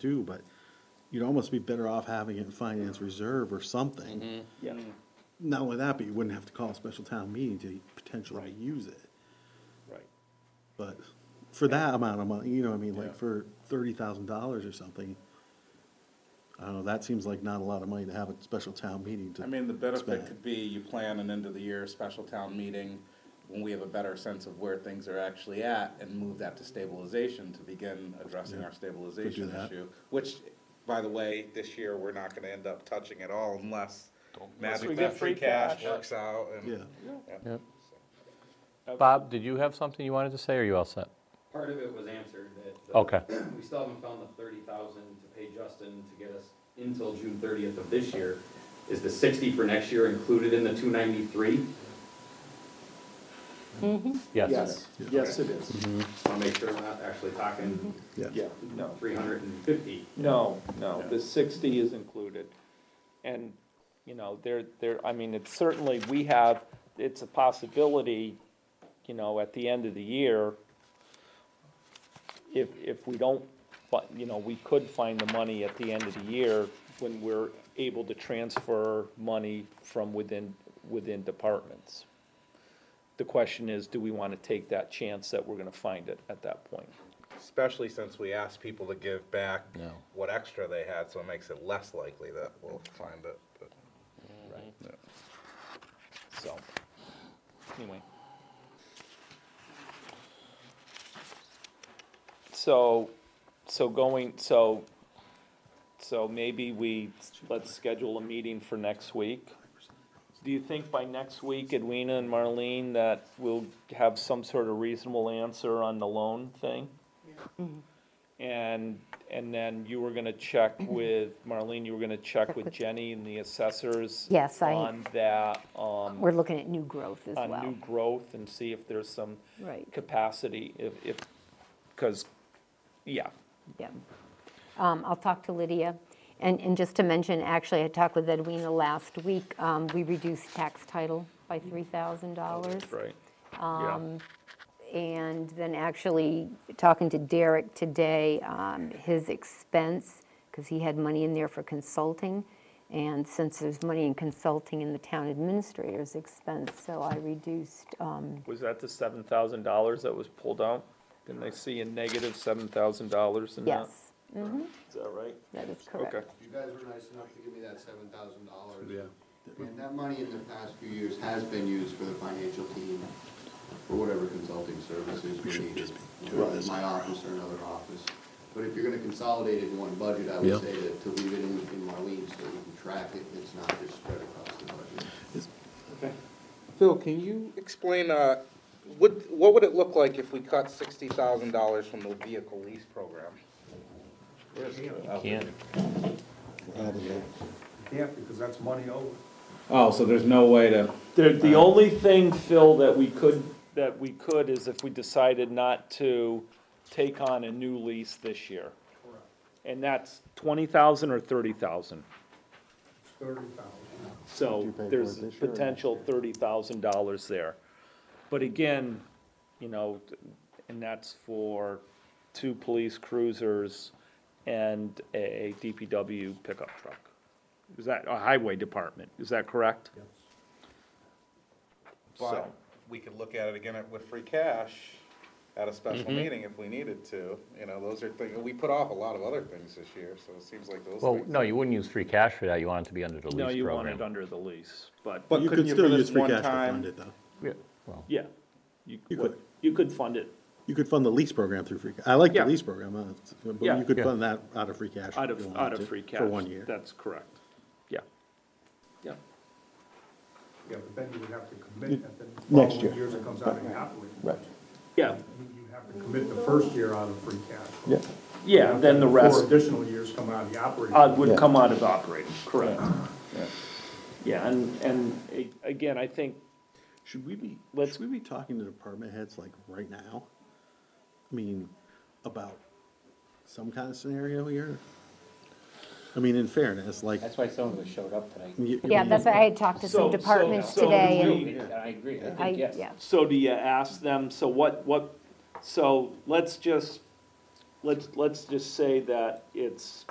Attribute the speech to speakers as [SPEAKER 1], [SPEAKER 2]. [SPEAKER 1] do, but you'd almost be better off having it in finance reserve or something.
[SPEAKER 2] Yeah,
[SPEAKER 1] Not only that, but you wouldn't have to call a special town meeting to potentially use it.
[SPEAKER 2] right.
[SPEAKER 1] But for that amount of money, you know, what I mean,
[SPEAKER 2] Yeah.
[SPEAKER 1] like for thirty thousand dollars or something, I don't know, that seems like not a lot of money to have a special town meeting to.
[SPEAKER 3] I mean, the benefit
[SPEAKER 1] spend.
[SPEAKER 3] could be you plan an end of the year special town meeting when we have a better sense of where things are actually at and move that to stabilization to begin addressing our stabilization
[SPEAKER 1] that.
[SPEAKER 3] issue. Which, by the way, this year, we're not gonna end up touching at all unless
[SPEAKER 2] Unless we
[SPEAKER 3] magic
[SPEAKER 2] get
[SPEAKER 3] that free
[SPEAKER 2] free
[SPEAKER 3] cash
[SPEAKER 2] cash.
[SPEAKER 3] works out and.
[SPEAKER 1] Yeah.
[SPEAKER 3] Yeah.
[SPEAKER 4] Yep. Bob, did you have something you wanted to say, or are you all set?
[SPEAKER 5] Part of it was answered that. uh,
[SPEAKER 4] Okay.
[SPEAKER 5] We still haven't found the thirty thousand to pay Justin to get us until June thirtieth of this year. Is the sixty for next year included in the two ninety-three?
[SPEAKER 4] Yes.
[SPEAKER 2] Yes, yes, it is.
[SPEAKER 5] Just wanna make sure we're not actually talking
[SPEAKER 2] Yeah, no,
[SPEAKER 5] three hundred and fifty.
[SPEAKER 2] no, no, the sixty is included. And, you know, there, there, I mean, it's certainly, we have, it's a possibility, you know, at the end of the year, if, if we don't, but, you know, we could find the money at the end of the year when we're able to transfer money from within, within departments. The question is, do we wanna take that chance that we're gonna find it at that point?
[SPEAKER 3] Especially since we asked people to give back
[SPEAKER 4] No.
[SPEAKER 3] what extra they had, so it makes it less likely that we'll find it. but-
[SPEAKER 2] So, anyway. So, so going, so, so maybe we, let's schedule a meeting for next week. Do you think by next week, Edwina and Marlene, that we'll have some sort of reasonable answer on the loan thing?
[SPEAKER 6] Mm-hmm.
[SPEAKER 2] And, and then you were gonna check with, Marlene, you were gonna check with Jenny and the assessors?
[SPEAKER 6] Yes, I-
[SPEAKER 2] On that, um,
[SPEAKER 6] We're looking at new growth as
[SPEAKER 2] on Uh, new
[SPEAKER 6] well.
[SPEAKER 2] growth and see if there's some
[SPEAKER 6] Right,
[SPEAKER 2] capacity, if, if, because, yeah,
[SPEAKER 6] yeah. Um, I'll talk to Lydia. And, and just to mention, actually, I talked with Edwina last week. Um, We reduced tax title by $3,000.
[SPEAKER 2] right. Um.
[SPEAKER 6] And then actually, talking to Derek today, um, his expense, because he had money in there for consulting, and since there's money in consulting in the town administrator's expense, so I reduced, um,
[SPEAKER 2] Was that the seven thousand dollars that was pulled out? Didn't they see a negative seven thousand dollars in that?
[SPEAKER 6] yes, Mm-hmm.
[SPEAKER 2] Is that right?
[SPEAKER 6] that is correct.
[SPEAKER 2] Okay,
[SPEAKER 7] You guys were nice enough to give me that seven thousand dollars. Yeah. And that money in the past few years has been used for the financial team, for whatever consulting services we needed. Whether it's my office or another office. But if you're gonna consolidate it in one budget, I
[SPEAKER 1] Yeah.
[SPEAKER 7] would say to, to leave it in, in Marlene so we can track it, it's not just spread across the budget.
[SPEAKER 3] Phil, can you explain, uh, what, what would it look like if we cut sixty thousand dollars from the vehicle lease program?
[SPEAKER 4] Can't.
[SPEAKER 8] Yeah, because that's money over.
[SPEAKER 3] Oh, so there's no way to.
[SPEAKER 2] the, the only thing, Phil, that we could, that we could is if we decided not to take on a new lease this year. And that's twenty thousand or thirty thousand?
[SPEAKER 8] Thirty thousand.
[SPEAKER 2] So
[SPEAKER 1] pay for
[SPEAKER 2] there's
[SPEAKER 1] it this year or
[SPEAKER 2] potential thirty thousand dollars there. But again, you know, and that's for two police cruisers and a DPW pickup truck. Is that, a highway department, is that correct?
[SPEAKER 3] But we could look at it again at- with free cash at a
[SPEAKER 4] Mm-hmm.
[SPEAKER 3] special meeting if we needed to, you know, those are things, we put off a lot of other things this year, so it seems like those
[SPEAKER 4] Well,
[SPEAKER 3] things.
[SPEAKER 4] no, you wouldn't use free cash for that, you want it to be under the lease
[SPEAKER 2] No,
[SPEAKER 4] program.
[SPEAKER 2] you want it under the lease, but,
[SPEAKER 3] But
[SPEAKER 1] You
[SPEAKER 3] couldn't
[SPEAKER 1] could
[SPEAKER 3] you
[SPEAKER 1] still
[SPEAKER 3] for
[SPEAKER 1] use
[SPEAKER 3] this
[SPEAKER 1] free
[SPEAKER 3] one
[SPEAKER 1] cash to
[SPEAKER 3] time-
[SPEAKER 1] fund it, though.
[SPEAKER 4] Yeah, well,
[SPEAKER 2] yeah. You
[SPEAKER 1] You
[SPEAKER 2] what-
[SPEAKER 1] could.
[SPEAKER 2] You could fund it
[SPEAKER 1] You could fund the lease program through free, ca- I like the
[SPEAKER 2] Yeah.
[SPEAKER 1] lease program, uh, it's- but
[SPEAKER 2] Yeah.
[SPEAKER 1] you could
[SPEAKER 4] Yeah.
[SPEAKER 1] fund that out of free cash.
[SPEAKER 2] out
[SPEAKER 1] if you
[SPEAKER 2] of,
[SPEAKER 1] wanted
[SPEAKER 2] out
[SPEAKER 1] to,
[SPEAKER 2] of free cash.
[SPEAKER 1] For one year.
[SPEAKER 2] That's correct, yeah, yeah.
[SPEAKER 8] Yeah, but then you would have to commit, and then
[SPEAKER 1] Next
[SPEAKER 8] following
[SPEAKER 1] year.
[SPEAKER 8] years it comes out of your operating.
[SPEAKER 1] Right.
[SPEAKER 2] Yeah,
[SPEAKER 8] You have to commit the first year out of free cash.
[SPEAKER 2] yeah, then the
[SPEAKER 8] Four
[SPEAKER 2] rest
[SPEAKER 8] additional years come out of the operating.
[SPEAKER 2] Uh, would come out of operating, correct. Yeah, and, and a- again, I think,
[SPEAKER 1] Should we be,
[SPEAKER 2] Let's-
[SPEAKER 1] should we be talking to department heads like right now? I mean, about some kind of scenario here? I mean, in fairness, like.
[SPEAKER 9] That's why some of us showed up tonight.
[SPEAKER 1] you-
[SPEAKER 6] Yeah, that's why I had talked to
[SPEAKER 2] So-
[SPEAKER 6] some
[SPEAKER 2] so-
[SPEAKER 6] departments
[SPEAKER 2] so
[SPEAKER 6] today,
[SPEAKER 2] do
[SPEAKER 6] and
[SPEAKER 2] we.
[SPEAKER 9] And I agree, I
[SPEAKER 6] I,
[SPEAKER 9] think yes.
[SPEAKER 6] yeah.
[SPEAKER 2] so do you ask them, so what, what, so let's just let's, let's just say that it's